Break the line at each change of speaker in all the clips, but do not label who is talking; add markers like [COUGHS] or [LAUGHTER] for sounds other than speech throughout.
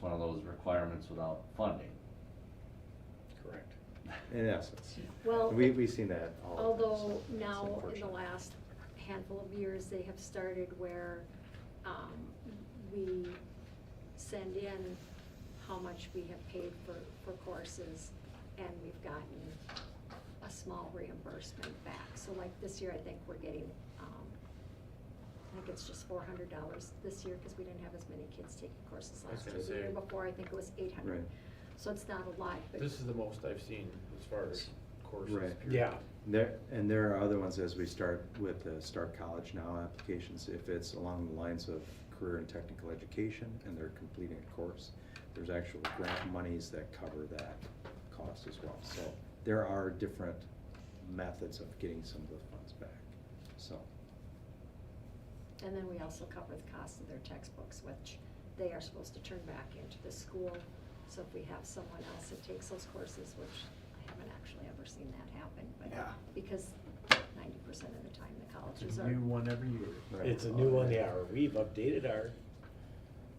one of those requirements without funding.
Correct.
in essence.
Well,
We, we've seen that all the time, so
Although
it's
now, in the
unfortunate.
last handful of years, they have started where um, we send in how much we have paid for, for courses, and we've gotten a small reimbursement back. So like this year, I think we're getting, um, I think it's just four hundred dollars this year, because we didn't have as many kids taking courses
I was
last year.
gonna
The year
say-
before, I think it was eight hundred.
Right.
So it's not a lot, but.
This is the most I've seen as far as courses.
Right.
period.
Yeah.
There, and there are other ones as we start with the Start College Now applications, if it's along the lines of career and technical education and they're completing a course, there's actual grant monies that cover that cost as well. So there are different methods of getting some of the funds back, so.
And then we also cover the cost of their textbooks, which they are supposed to turn back into the school. So if we have someone else that takes those courses, which I haven't actually ever seen that happen, but
Yeah.
because ninety percent of the time the colleges
It's a
are.
new one every year.
Right.
It's a new one, yeah, or we've updated our,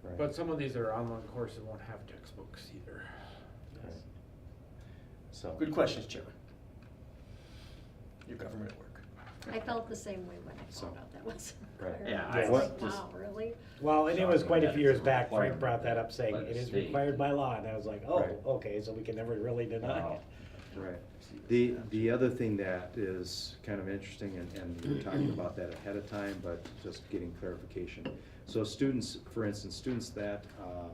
right.
But some of these are online courses won't have textbooks either.
Right. So.
good questions, Chairman. Your government work.
I felt the same way when I
So-
found out that was. [LAUGHS]
Right.
required.
Yeah,
I
I-
was like,
What does-
wow, really?
Well, and it was quite a few years
Shocking.
back, Frank
Requirement
brought that up saying
by the
it is
state.
required by law, and I was like, oh,
Right.
okay, so we can never really deny
Uh,
it.
[LAUGHS] Right. The, the other thing that is kind of interesting, and, and we were talking about that ahead of time, but just getting clarification. So students, for instance, students that, um,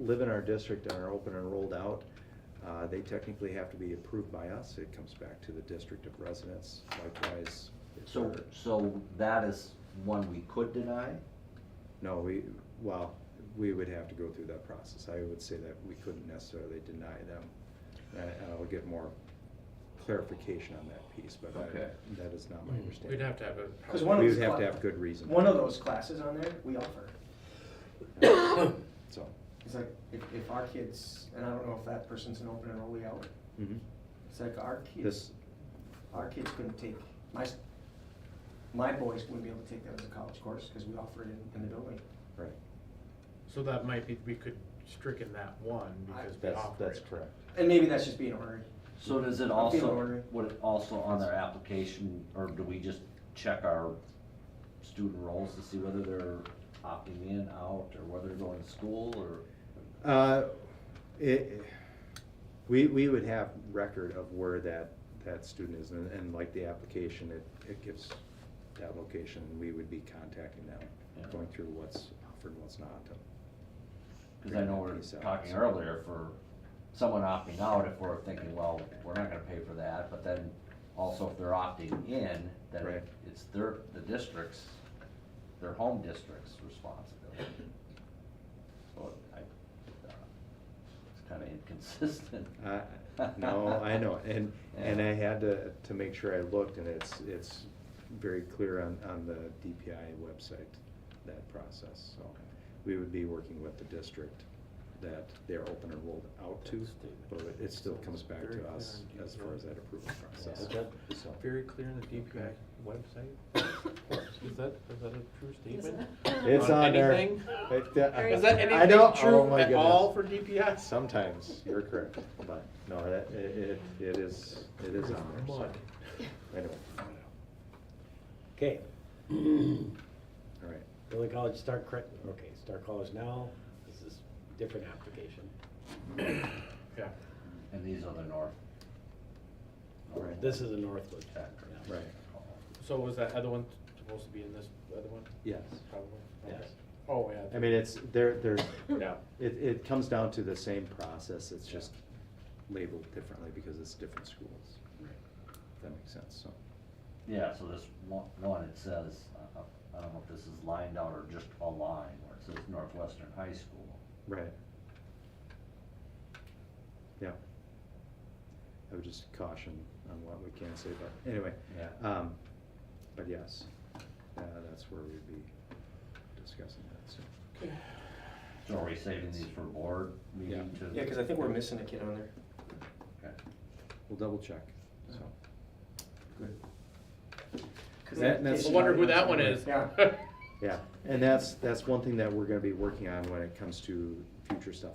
live in our district and are open and rolled out, uh, they technically have to be approved by us. It comes back to the district of residence likewise. if
So,
they're-
so that is one we could deny?
No, we, well, we would have to go through that process. I would say that we couldn't necessarily deny them. And I- and I'll get more clarification on that piece, but
Okay.
I- that is not my understanding.
Mm-hmm. We'd have to have a.
'Cause one of
We
these
would have
cla-
to have good reason.
One of those classes on there, we offer.
[COUGHS] So,
It's like, if, if our kids, and I don't know if that person's an open enrollee out,
mhm.
it's like our
this,
our kids couldn't take, my, s- my boys wouldn't be able to take that as a college course, because we offer it in, in the building.
right,
So that might be, we could stricken that one because we
that's,
offer
that's
it.
correct.
And maybe that's just being a hurry.
So does it
I'm feeling
also,
ornery.
would it also on their application, or do we just check our student roles to see whether they're opting in, out, or whether they're going to school, or?
Uh, It, we, we would have record of where that, that student is, and, and like the application, it, it gives that location, and we would be contacting them,
Yeah.
going through what's offered, and what's not.
Cause I know we
Figuring
we're
that piece out,
talking
so.
earlier for someone opting out, if we're thinking, well, we're not gonna pay for that, but then also if they're opting in, then
Right.
it's their, the district's, their home district's responsibility. So I, uh, it's kinda inconsistent.
I-
[LAUGHS]
No, I know, and, and I had to, to make sure I looked, and it's, it's very clear on, on the DPI website, that process, so. We would be working with the district that they're open and rolled out to, but it still comes back to us as far as that approval process.
Yeah.
So,
Very clear in the DPI website.
[LAUGHS]
Is that, is that a true statement?
It's on there.
anything?
It- uh,
Very
Is that
I
anything
don't- oh
true
my
at all for
goodness.
DPI?
Sometimes, you're correct, but, no, that, it, it- it is, it is on there, so,
Mud.
anyway,
Okay,
all right.
Billy College, start correct, okay, start college now, this is different application.
Yeah.
And these are the north.
Right.
This is a Northwood.
Chapter.
yeah.
Right.
Oh.
So was that other one supposed to be in this other one?
Yes.
Probably.
Yes.
Okay. Oh, yeah.
I mean, it's, there, there's,
Yeah.
It, it comes down to the same process, it's just labeled differently because it's different schools. If that makes sense, so.
Yeah, so this one, one, it says, uh, uh, I don't know if this is lined out or just a line, where it says Northwestern High School.
Right. Yeah. I would just caution on what we can say, but anyway.
Yeah.
Um, but yes, uh, that's where we'd be discussing that, so.
So are we saving these for board meeting
Yeah.
to?
Yeah, because I think we're missing a kid on there.
Okay.
We'll double check, so.
Good.
That- that's-
I wonder who that one is.
Yeah.
[LAUGHS]
Yeah, and that's, that's one thing that we're gonna be working on when it comes to future stuff.